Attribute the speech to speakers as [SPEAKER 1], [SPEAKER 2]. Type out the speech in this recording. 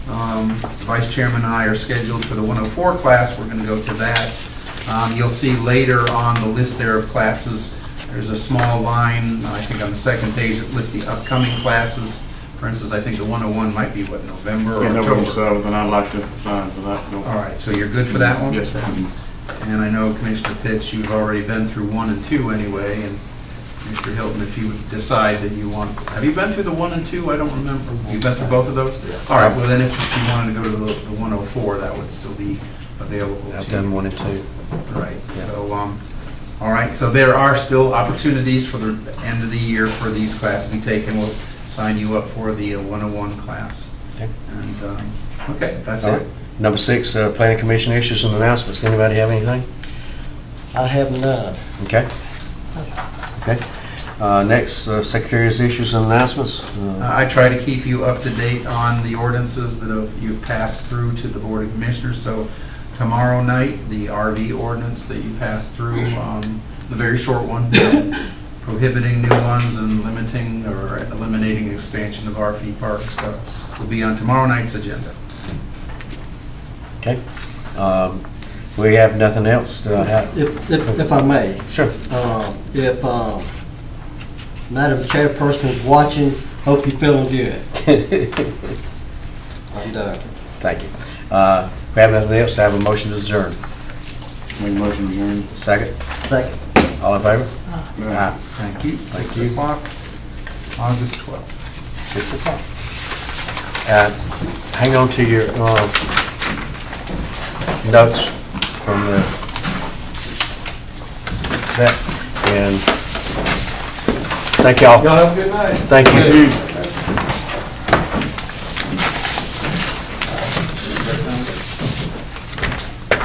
[SPEAKER 1] Um, the Vice Chairman and I are scheduled for the 104 class, we're going to go to that. Um, You'll see later on the list there of classes, there's a small line, I think on the second page, that lists the upcoming classes. For instance, I think the 101 might be, what, November or
[SPEAKER 2] Yeah,
[SPEAKER 1] October?
[SPEAKER 2] November seventh, and I'd like to sign for that.
[SPEAKER 1] All right, so you're good for that one?
[SPEAKER 2] Yes, ma'am.
[SPEAKER 1] And I know Commissioner Pitts, you've already been through one and two anyway, and Mr. Hilton, if you would decide that you want, have you been through the one and two? I don't remember. You've been through both of those? All right, well then if you wanted to go to the the 104, that would still be available to you.
[SPEAKER 3] I've done one and two.
[SPEAKER 1] Right,
[SPEAKER 3] Yeah.
[SPEAKER 1] so, um, all right, so there are still opportunities for the end of the year for these classes to be taken. We'll sign you up for the uh, 101 class.
[SPEAKER 3] Okay.
[SPEAKER 1] And, um, okay, that's
[SPEAKER 3] All right.
[SPEAKER 1] it.
[SPEAKER 3] Number six, uh, planning commission issues and announcements. Anybody have anything?
[SPEAKER 4] I have none.
[SPEAKER 3] Okay. Okay. Uh, Next, uh, secretary's issues and announcements. Uh,
[SPEAKER 1] I try to keep you up to date on the ordinances that have- you've passed through to the Board of Commissioners. So tomorrow night, the RV ordinance that you passed through, um, the very short one, prohibiting new ones and limiting or eliminating expansion of RV parks, so will be on tomorrow night's agenda.
[SPEAKER 3] Okay. Um, We have nothing else to have.
[SPEAKER 4] If, if if I may,
[SPEAKER 3] Sure.
[SPEAKER 4] um, if um, Madam Chairperson is watching, hope you're feeling good. I'm done.
[SPEAKER 3] Thank you. Uh, We have nothing else to have a motion to adjourn.
[SPEAKER 2] Make a motion to adjourn.
[SPEAKER 3] Second,
[SPEAKER 4] Second.
[SPEAKER 3] all in favor?
[SPEAKER 2] Aye.
[SPEAKER 1] Thank you. Six
[SPEAKER 3] you.
[SPEAKER 1] o'clock, August 12th.
[SPEAKER 3] Six o'clock. Uh, Hang on to your uh, notes from the, that, and thank y'all. Y'all have a good night. Thank you.
[SPEAKER 2] Thank you.